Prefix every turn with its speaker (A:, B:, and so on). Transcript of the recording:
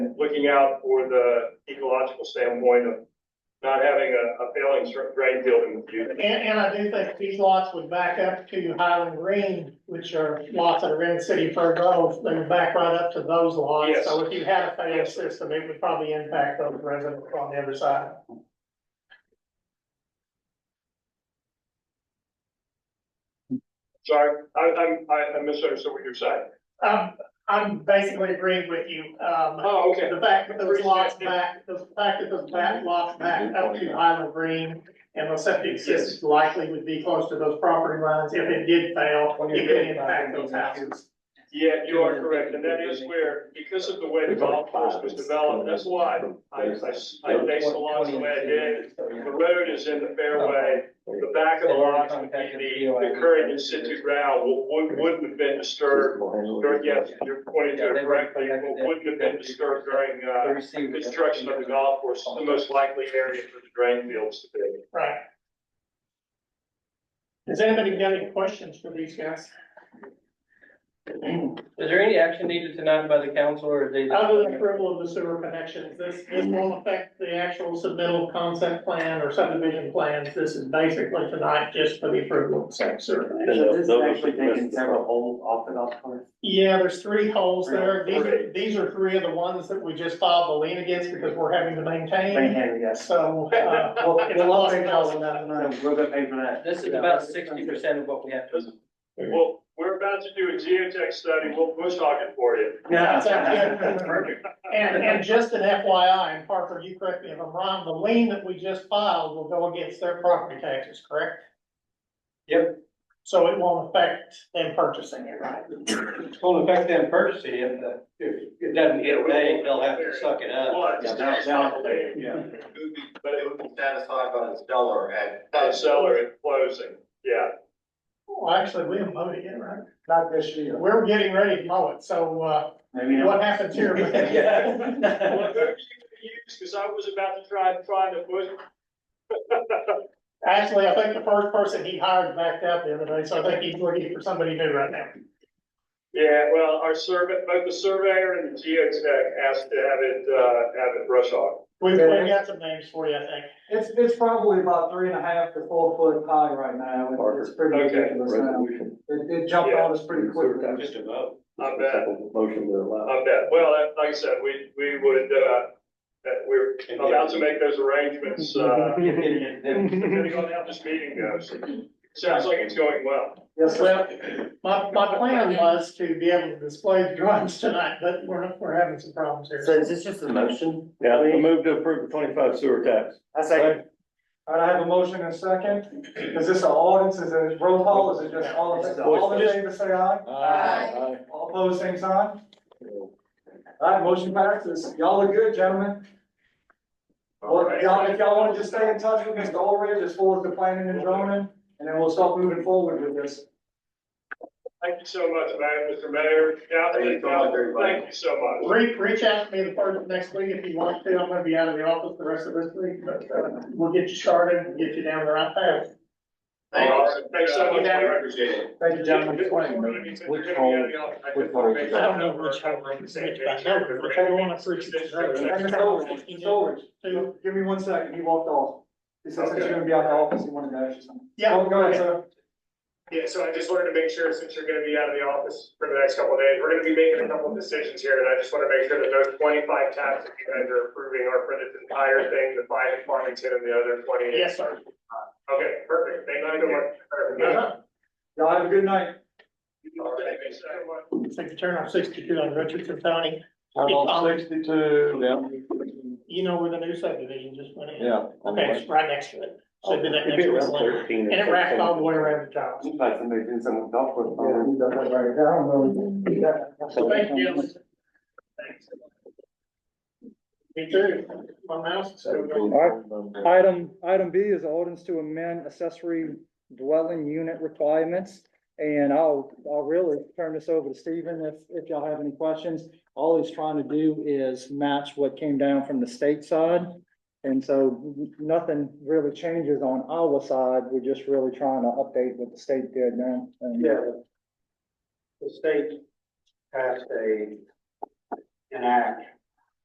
A: looking out for the ecological standpoint of not having a, a failing str- drain field in the future.
B: And, and I do think these lots would back up to Highland Green, which are lots that are in City Fur Grove, they would back right up to those lots.
A: Yes.
B: So if you had a failed system, it would probably impact those residents on the other side.
A: Sorry, I, I'm, I I misunderstood what you're saying.
B: Um, I'm basically agreeing with you, um,
A: Oh, okay.
B: the fact that those lots back, the fact that those back lots back up to Highland Green and the septic system likely would be close to those property lines, if it did fail, it could impact those houses.
A: Yeah, you are correct, and that is where, because of the way the golf course was developed, that's why I, I, I based the lots the way I did. The road is in the fairway, the back of the lots would be the, the current in situ ground, would, wouldn't have been disturbed. Or, yes, you're pointing to it correctly, wouldn't have been disturbed during, uh, construction of the golf course, the most likely area for the drain fields to be.
B: Right. Has anybody got any questions for these guys?
C: Is there any action needed tonight by the council or is they?
B: Other than approval of the sewer connections, this, this won't affect the actual submittal concept plan or subdivision plans. This is basically tonight just for the approval of said sewer connection.
D: So
E: Those
D: this is
E: are
D: actually
E: the
D: taking
E: best.
D: several holes off the golf course.
B: Yeah, there's three holes there. These are, these are three of the ones that we just filed the lien against because we're having to
D: Right
B: maintain.
D: here, yes.
B: So, uh,
D: Well,
B: it's
D: we'll all
B: lost
D: pay
B: in
D: for
B: all of
D: that.
B: that money.
D: No, We're gonna pay for that.
C: This is about sixty percent of what we have. to-
A: Well, we're about to do a geotech study, we'll bush hog it for you.
B: That's actually- And, and just an FYI, and Parker, you correct me if I'm wrong, the lien that we just filed will go against their property taxes, correct?
C: Yep.
B: So it won't affect them purchasing it, right?
C: It's gonna affect them purchasing if the, if it doesn't get away, they'll have to suck it up.
A: Well, it's not validated,
D: Yeah.
A: but it
F: It would be satisfied by the seller at.
A: would seller at closing, yeah.
B: Well, Oh, actually, we haven't mowed it yet, right?
D: Not this year.
B: We're getting ready to mow it, so, uh,
D: Maybe not.
B: what happens here?
A: Well,
D: Yeah.
A: who are you gonna use? Cause I was about to try, try to push.
B: Actually, I think the first person he hired backed out the other day, so I think he's looking for somebody new right now.
A: Yeah, well, our survey, both the surveyor and the geotech asked to have it, uh, have it brush off.
B: We've, we've got some names for you, I think.
G: It's, it's probably about three and a half to four foot high right now, It- it's pretty
A: Okay.
G: ridiculous now.
E: Resolution.
G: It, it jumped on us pretty quickly.
E: Just a vote.
A: I bet,
E: Motion to allow.
A: I bet. Well, that- like I said, we, we would, uh, that we're about to make those arrangements, uh, depending on how this meeting goes. Sounds like it's going well.
G: Yes, sir.
B: Well, my, my plan was to be able to display the drawings tonight, but we're, we're having some problems
D: So
B: here.
D: is this just a motion?
E: Yeah, I move to approve the twenty-five sewer tax.
D: I say,
G: All right, I have a motion and a second. Is this an audience, is it roll call, is it just all of us? All in favor, say aye.
E: Aye.
G: All opposed, same sign. All right, motion passes. Y'all look good, gentlemen. Well, y'all, if y'all wanna just stay in touch with Mr. Orridge as far as the planning and zoning, and then we'll start moving forward with this.
A: Thank you so much, Mayor, Mr. Mayor, Captain,
F: Thank you so much, everybody.
A: thank you so much.
B: Reach, reach out to me the first, next week if you want to. I'm gonna be out of the office the rest of this week, but, uh, we'll get you started and get you down the right path.
A: Awesome. Thanks so much, Mayor.
F: Appreciate it.
G: Thank you, gentlemen.
A: Which hole? Which hole? I don't know which hole.
G: Hey, Mr. Orridge, Mr. Orridge.
B: Two.
G: Give me one second, he walked off. He said since
A: Okay.
G: you're gonna be out of the office, he wanted to ask you something. Oh,
B: Yeah.
G: Go- Go ahead, sir.
A: Yeah, so I just wanted to make sure, since you're gonna be out of the office for the next couple of days, we're gonna be making a couple of decisions here, and I just wanna make sure that those twenty-five tabs that you guys are approving are for this entire thing, the five in Farmington and the other twenty.
B: Yes, sir.
A: Okay, perfect, thank you so much.
B: Uh-huh.
G: Y'all have a good night.
A: All right, thank you so much.
B: Take the turn on sixty-two on Richardson County.
E: Turn on sixty-two, down.
B: You know where the new subdivision just went in?
E: Yeah.
B: Okay, it's right next to it. So it'd be that
E: It'd
B: next
E: be around
B: one.
E: 13 or
B: And it wrapped all the way
E: 14.
B: around the top.
D: Seems like somebody did something with golf course.
B: So thank you. Thanks. Me too. My mouse is over.
H: Item, item B is ordinance to amend accessory dwelling unit requirements. And I'll, I'll really turn this over to Stephen if, if y'all have any questions. All he's trying to do is match what came down from the state side. And so nothing really changes on our side. We're just really trying to update what the state did now. And-
D: Yeah.
F: The state passed a, an act